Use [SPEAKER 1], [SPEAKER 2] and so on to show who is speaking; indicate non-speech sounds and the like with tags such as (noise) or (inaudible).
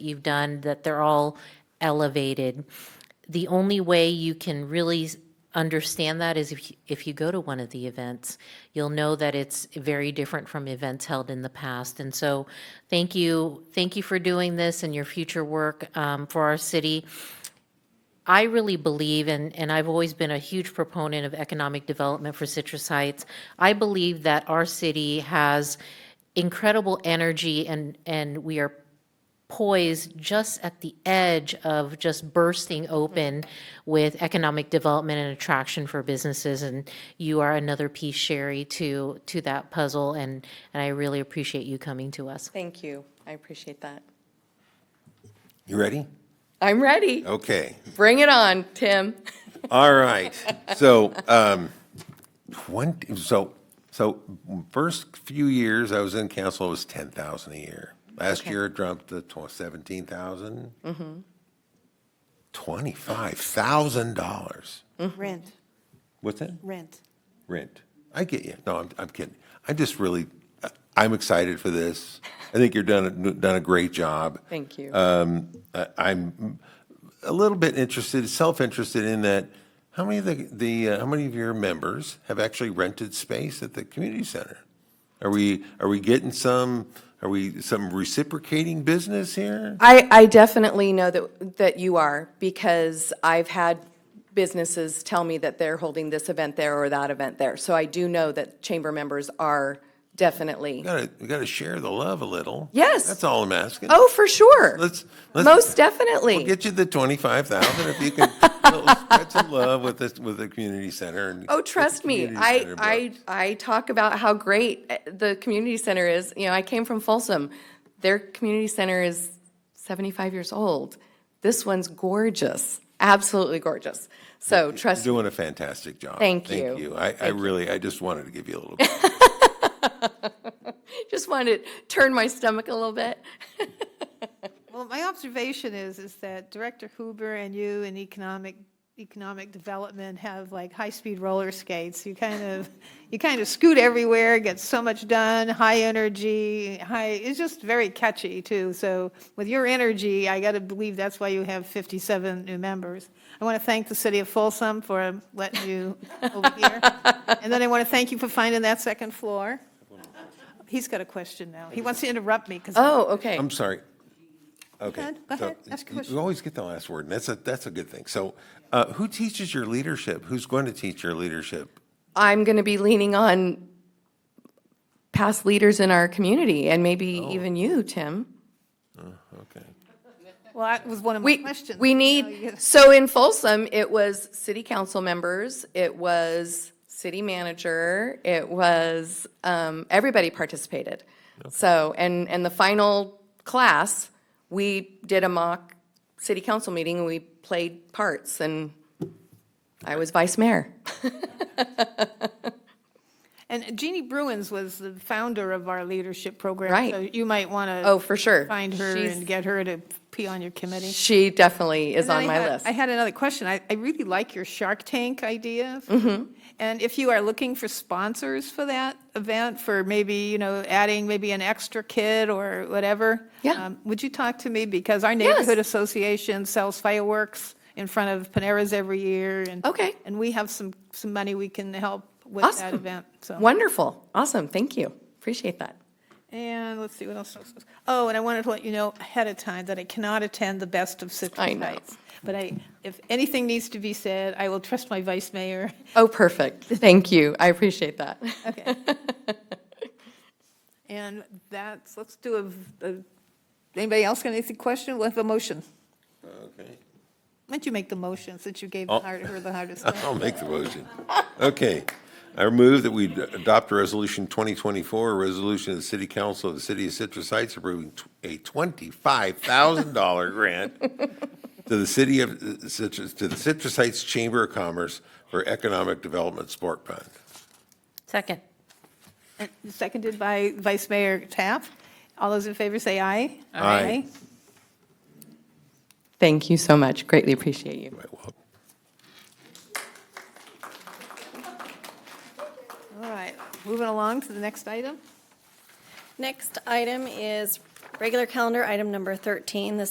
[SPEAKER 1] you've done, that they're all elevated. The only way you can really s- understand that is if, you- if you go to one of the events, you'll know that it's very different from events held in the past. And so, thank you, thank you for doing this and your future work um, for our city. I really believe, and, and I've always been a huge proponent of economic development for Citrus Heights. I believe that our city has incredible energy and, and we are poised just at the edge of just bursting open with economic development and attraction for businesses. And you are another piece, Sherry, to, to that puzzle. And, and I really appreciate you coming to us.
[SPEAKER 2] Thank you. I appreciate that.
[SPEAKER 3] You ready?
[SPEAKER 2] I'm ready.
[SPEAKER 3] Okay.
[SPEAKER 2] Bring it on, Tim.
[SPEAKER 3] All right. So, um, twenty, so, so first few years I was in council, it was ten thousand a year. Last year it dropped to tw- seventeen thousand. Twenty-five thousand dollars.
[SPEAKER 4] Rent,
[SPEAKER 3] What's that?
[SPEAKER 4] rent.
[SPEAKER 3] Rent. I get you. No, I'm, I'm kidding. I just really, I- I'm excited for this. I think you're done, a- done a great job.
[SPEAKER 2] Thank you.
[SPEAKER 3] Uh, I- I'm a little bit interested, self-interested in that, how many of the, the, uh, how many of your members have actually rented space at the community center? Are we, are we getting some, are we, some reciprocating business here?
[SPEAKER 2] I, I definitely know that, that you are, because I've had businesses tell me that they're holding this event there or that event there. So I do know that chamber members are definitely,
[SPEAKER 3] We gotta, we gotta share the love a little.
[SPEAKER 2] Yes.
[SPEAKER 3] That's all I'm asking.
[SPEAKER 2] oh, for sure.
[SPEAKER 3] Let's, let's.
[SPEAKER 2] Most definitely.
[SPEAKER 3] Get you the twenty-five thousand if you can
[SPEAKER 2] (laughs)
[SPEAKER 3] little spread some love with this, with the community center and.
[SPEAKER 2] Oh, trust me,
[SPEAKER 3] community
[SPEAKER 2] I,
[SPEAKER 3] center
[SPEAKER 2] I,
[SPEAKER 3] bucks.
[SPEAKER 2] I talk about how great eh, the community center is. You know, I came from Folsom. Their community center is 75 years old. This one's gorgeous, absolutely gorgeous. So trust
[SPEAKER 3] Doing a fantastic job.
[SPEAKER 2] Thank
[SPEAKER 3] Thank
[SPEAKER 2] you.
[SPEAKER 3] you. I, I really, I just wanted to give you a little. bit.
[SPEAKER 2] (laughs) Just wanted to turn my stomach a little bit.
[SPEAKER 5] Well, my observation is, is that Director Huber and you and economic, economic development have like high-speed roller skates. You kind of, (laughs) you kind of scoot everywhere, get so much done, high energy, high, it's just very catchy too. So with your energy, I got to believe that's why you have 57 new members. I want to thank the city of Folsom for
[SPEAKER 4] (laughs)
[SPEAKER 5] letting you over here. And then I want to thank you for finding that second floor. He's got a question now. He wants to interrupt me because.
[SPEAKER 2] Oh, okay.
[SPEAKER 3] I'm sorry. Okay.
[SPEAKER 5] ahead, go
[SPEAKER 3] so
[SPEAKER 5] ahead, ask your
[SPEAKER 3] you-
[SPEAKER 5] question.
[SPEAKER 3] You always get the last word, and that's a, that's a good thing. So uh, who teaches your leadership? Who's going to teach your leadership?
[SPEAKER 2] I'm going to be leaning on past leaders in our community and maybe even you, Tim.
[SPEAKER 3] Okay.
[SPEAKER 5] Well, that was one of my
[SPEAKER 2] We,
[SPEAKER 5] questions.
[SPEAKER 2] we
[SPEAKER 5] Now you
[SPEAKER 2] need,
[SPEAKER 5] get-
[SPEAKER 2] so in Folsom, it was city council members, it was city manager, it was, um, everybody participated. So, and, and the final class, we did a mock city council meeting and we played parts and I was vice mayor.
[SPEAKER 5] And Jeannie Bruins was the founder of our leadership program.
[SPEAKER 2] Right.
[SPEAKER 5] So you might want to.
[SPEAKER 2] Oh, for sure.
[SPEAKER 5] Find her
[SPEAKER 2] She's-
[SPEAKER 5] and get her to pee on your committee.
[SPEAKER 2] She definitely is
[SPEAKER 5] And then
[SPEAKER 2] on
[SPEAKER 5] I
[SPEAKER 2] my
[SPEAKER 5] had-
[SPEAKER 2] list.
[SPEAKER 5] I had another question. I, I really like your Shark Tank idea. Mm-hmm. And if you are looking for sponsors for that event, for maybe, you know, adding maybe an extra kid or whatever.
[SPEAKER 2] Yeah.
[SPEAKER 5] um, Would you talk to me? Because our neighborhood association sells fireworks in front of Panera's every year. and-
[SPEAKER 2] Okay.
[SPEAKER 5] And we have some, some money we can help with that
[SPEAKER 2] Awesome.
[SPEAKER 5] event, so.
[SPEAKER 2] Wonderful, awesome, thank you, appreciate that.
[SPEAKER 5] And let's see, what else? was- Oh, and I wanted to let you know ahead of time that I cannot attend the Best of Citrus
[SPEAKER 2] I know.
[SPEAKER 5] Heights. But I, if anything needs to be said, I will trust my vice mayor.
[SPEAKER 2] Oh, perfect, thank you, I appreciate that.
[SPEAKER 5] (laughs) Okay. And that's, let's do a v- a, anybody else got anything question? We'll have a motion.
[SPEAKER 3] Okay.
[SPEAKER 5] Why don't you make the motion since you gave the
[SPEAKER 3] Oh.
[SPEAKER 5] hard- her the
[SPEAKER 3] (laughs)
[SPEAKER 5] hardest one?
[SPEAKER 3] (laughs) I'll make the motion. Okay. I move that we d- adopt Resolution 2024, a resolution of the City Council of the City of Citrus Heights approving tw- a $25,000 grant to the City of uh, Citrus, to the Citrus Heights Chamber of Commerce for Economic Development Sport Fund.
[SPEAKER 1] Second.
[SPEAKER 5] Seconded by Vice Mayor Taft. All those in favor say aye.
[SPEAKER 3] Aye.
[SPEAKER 2] Thank you so much, greatly appreciate you.
[SPEAKER 3] Right, well,
[SPEAKER 5] All right, moving along to the next item.
[SPEAKER 6] Next item is regular calendar item number 13, the